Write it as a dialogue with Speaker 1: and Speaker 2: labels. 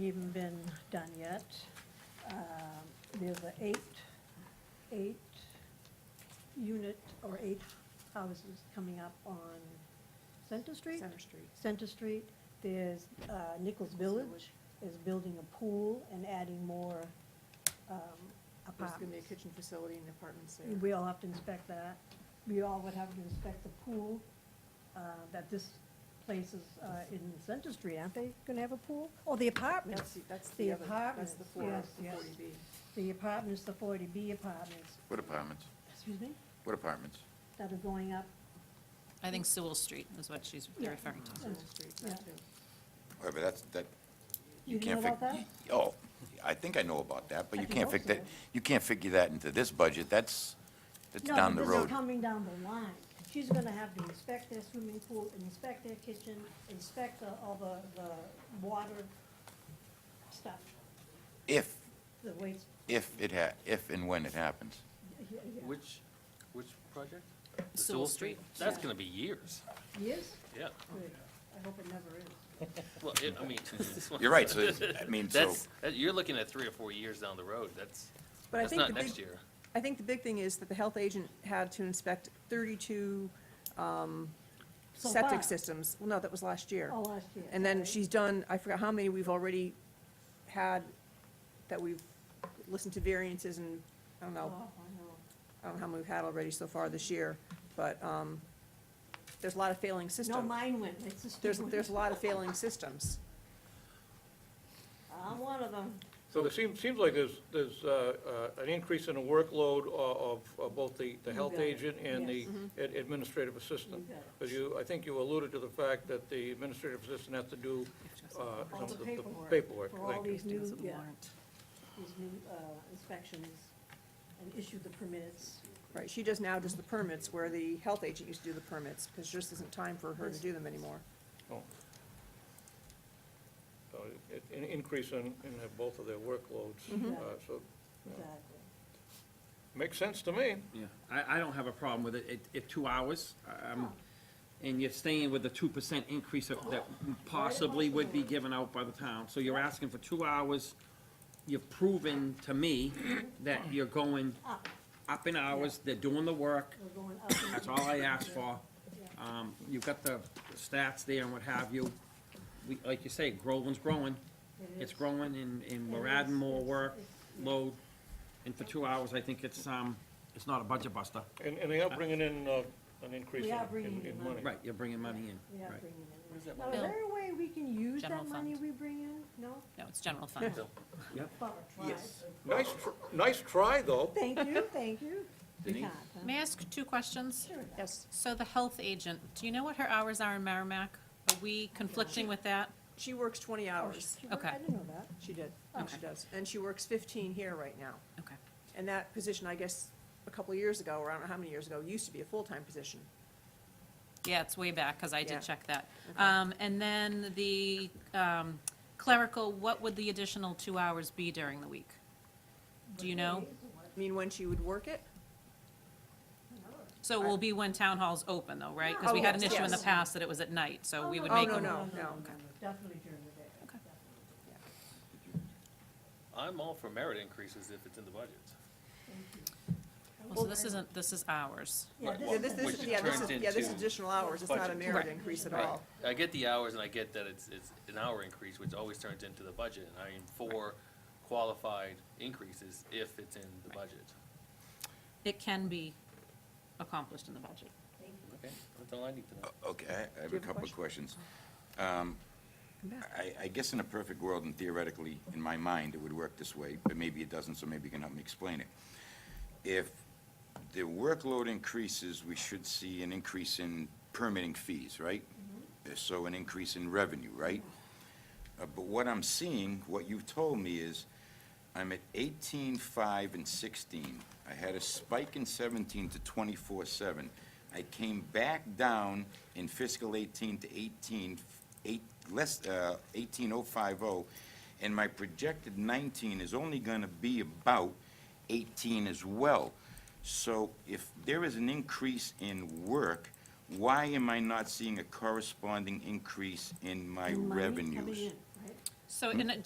Speaker 1: even been done yet. Um, There's an eight, eight unit or eight houses coming up on Center Street.
Speaker 2: Center Street.
Speaker 1: Center Street, there's uh, Nichols Village is building a pool and adding more um,
Speaker 2: There's gonna be a
Speaker 1: apartments.
Speaker 2: kitchen facility and apartments there.
Speaker 1: We all have to inspect that. We all would have to inspect the pool, uh, that this place is uh, in Center Street, aren't they gonna have a pool? Or the
Speaker 2: That's,
Speaker 1: apartments?
Speaker 2: the- that's
Speaker 1: The
Speaker 2: the other, that's the
Speaker 1: apartments,
Speaker 2: four,
Speaker 1: yes,
Speaker 2: the
Speaker 1: yes.
Speaker 2: forty B.
Speaker 1: The apartments, the forty B apartments,
Speaker 3: What apartments?
Speaker 1: excuse me,
Speaker 3: What apartments?
Speaker 1: that are going up.
Speaker 4: I think Sewell Street is what she's
Speaker 1: Yeah.
Speaker 4: referring to.
Speaker 2: Center Street, that
Speaker 1: Yeah.
Speaker 2: too.
Speaker 3: Wait, but that's, that, you
Speaker 1: You know
Speaker 3: can't
Speaker 1: about
Speaker 3: figure.
Speaker 1: that?
Speaker 3: Oh, I think I know about that, but
Speaker 1: I
Speaker 3: you
Speaker 1: think
Speaker 3: can't fig,
Speaker 1: also.
Speaker 3: that, you can't figure that into this budget, that's, that's
Speaker 1: No,
Speaker 3: down the
Speaker 1: this is
Speaker 3: road.
Speaker 1: coming down the line. She's gonna have to inspect their swimming pool, inspect their kitchen, inspect the, all the, the water stuff,
Speaker 3: If,
Speaker 1: the waste.
Speaker 3: if it ha, if and when it happens.
Speaker 1: yeah, yeah.
Speaker 5: Which, which project? The
Speaker 4: Sewell Street.
Speaker 5: That's gonna be years,
Speaker 1: Yes?
Speaker 5: yeah.
Speaker 1: Good. I hope it never is.
Speaker 5: Well, it, I mean. this one-
Speaker 3: You're right, so, it's- I mean, so,
Speaker 5: That's, that- you're looking at three or four years down the road, that's,
Speaker 2: But I
Speaker 5: that's
Speaker 2: think
Speaker 5: not
Speaker 2: the big-
Speaker 5: next year.
Speaker 2: I think the big thing is that the health agent had to inspect thirty-two um,
Speaker 1: So far.
Speaker 2: septic systems. Well, no, that was last year.
Speaker 1: Oh, last year.
Speaker 2: And then
Speaker 1: okay.
Speaker 2: she's done, I forgot how many we've already had that we've listened to variances and, I don't
Speaker 1: Oh, I
Speaker 2: know,
Speaker 1: know.
Speaker 2: I don't know how many we've had already so far this year, but, um, there's a lot of failing systems.
Speaker 1: No, mine went, it's just.
Speaker 2: There's, there's a lot of failing systems.
Speaker 1: I'm one of them.
Speaker 6: So it seems, seems like there's, there's uh, uh, an increase in the workload o- of, of both the, the
Speaker 1: You
Speaker 6: health
Speaker 1: got it.
Speaker 6: agent and the
Speaker 1: Yes. Mm-hmm.
Speaker 6: ad- administrative assistant.
Speaker 1: You got it.
Speaker 6: Because you, I think you alluded to the fact that the administrative assistant has to do uh, some
Speaker 1: All
Speaker 6: of
Speaker 1: the
Speaker 6: the
Speaker 1: paperwork.
Speaker 6: paperwork.
Speaker 1: For all
Speaker 6: Thank you.
Speaker 1: these new,
Speaker 4: Doesn't
Speaker 1: yeah,
Speaker 4: warrant.
Speaker 1: these new uh, inspections and issue the permits.
Speaker 2: Right, she does now just the permits, where the health agent used to do the permits, because there just isn't time for her to do them anymore.
Speaker 6: Oh. So it- An increase in, in the- both of their workloads.
Speaker 1: Mhm.
Speaker 6: Uh, So,
Speaker 1: Exactly.
Speaker 6: makes sense to me.
Speaker 7: Yeah, I, I don't have a problem with it, it, it, two hours, um, and you're staying with the two percent increase of- that possibly would be given out by the town, so you're asking for two hours. You've proven to me that you're going
Speaker 1: Up,
Speaker 7: up in hours, they're doing the work,
Speaker 1: we're going up. and
Speaker 7: that's
Speaker 1: up.
Speaker 7: all I asked for. Um, you've got the stats there and what have you, we, like you say, Groveland's growing,
Speaker 1: It
Speaker 7: it's
Speaker 1: is.
Speaker 7: growing and, and we're
Speaker 1: It
Speaker 7: adding
Speaker 1: is.
Speaker 7: more
Speaker 1: It's-
Speaker 7: work,
Speaker 1: it's-
Speaker 7: load, and for two hours, I think it's, um, it's not a budget buster.
Speaker 6: And, and they are bringing in uh, an increase
Speaker 1: We
Speaker 6: in
Speaker 1: are
Speaker 6: in-
Speaker 1: bringing in
Speaker 6: in
Speaker 1: money.
Speaker 6: money.
Speaker 7: Right, you're bringing money in,
Speaker 1: Yeah,
Speaker 7: right.
Speaker 1: bringing
Speaker 5: Where's
Speaker 1: it in.
Speaker 5: that
Speaker 1: Now, is
Speaker 4: money?
Speaker 1: there a way we can use
Speaker 4: General
Speaker 1: that money
Speaker 4: fund.
Speaker 1: we bring in? No?
Speaker 4: No, it's general fund.
Speaker 5: Bill,
Speaker 1: Well, try.
Speaker 7: Yes.
Speaker 6: Nice, tr- nice try, though.
Speaker 1: Thank you, thank you. We
Speaker 3: Denise?
Speaker 1: can't, huh?
Speaker 4: May I ask two questions?
Speaker 1: Sure.
Speaker 2: Yes.
Speaker 4: So the health agent, do you know what her hours are in Merrimack? Are we conflicting with that?
Speaker 2: She works twenty hours,
Speaker 1: Oh, Sure, I
Speaker 4: Okay.
Speaker 1: didn't know that.
Speaker 2: she did, and she
Speaker 4: Okay.
Speaker 2: does, and she works fifteen here right now.
Speaker 4: Okay.
Speaker 2: And that position, I guess, a couple of years ago, or I don't know how many years ago, used to be a full-time position.
Speaker 4: Yeah, it's way back, because I
Speaker 2: Yeah.
Speaker 4: did check that.
Speaker 2: Okay.
Speaker 4: Um, and then the, um, clerical, what would the additional two hours be during the week? Do you know?
Speaker 2: I mean, when she would work it,
Speaker 4: So it will be when town hall's open though, right? Because
Speaker 2: Oh,
Speaker 4: we had an
Speaker 2: yes,
Speaker 4: issue in the
Speaker 2: yes.
Speaker 4: past that it was at night, so we would
Speaker 2: Oh,
Speaker 4: make
Speaker 2: no,
Speaker 4: them-
Speaker 2: no, no,
Speaker 1: Definitely during the day.
Speaker 4: Okay.
Speaker 5: I'm all for merit increases if it's in the budget.
Speaker 4: Well, So this isn't, this is ours.
Speaker 1: Yeah,
Speaker 2: yeah, this,
Speaker 1: this
Speaker 2: this,
Speaker 1: is,
Speaker 5: Which
Speaker 2: yeah, this is,
Speaker 5: turns
Speaker 2: yeah, this is
Speaker 5: into
Speaker 2: additional hours, it's not a
Speaker 5: budget.
Speaker 2: merit
Speaker 4: Right.
Speaker 2: increase at
Speaker 5: Right.
Speaker 2: all.
Speaker 5: I get the hours and I get that it's, it's an hour increase, which always turns into the budget, and I am for qualified increases if it's in the budget.
Speaker 4: It can be accomplished in the budget.
Speaker 5: Okay, that's all I need to know.
Speaker 3: Okay, I- I have
Speaker 2: Do you
Speaker 3: a
Speaker 2: have a
Speaker 3: couple of questions. Um, I, I guess in a perfect world, and theoretically, in my mind, it would work this way, but maybe it doesn't, so maybe you can help me explain it. If the workload increases, we should see an increase in permitting fees, right? So an increase in revenue, right? Uh, But what I'm seeing, what you've told me is, I'm at eighteen, five, and sixteen. I had a spike in seventeen to twenty-four, seven. I came back down in fiscal eighteen to eighteen, eight, less, uh, eighteen oh five oh, and my projected nineteen is only gonna be about eighteen as well. So if there is an increase in work, why am I not seeing a corresponding increase in my
Speaker 1: And money coming
Speaker 3: revenues?
Speaker 1: in, right?
Speaker 4: So, and it-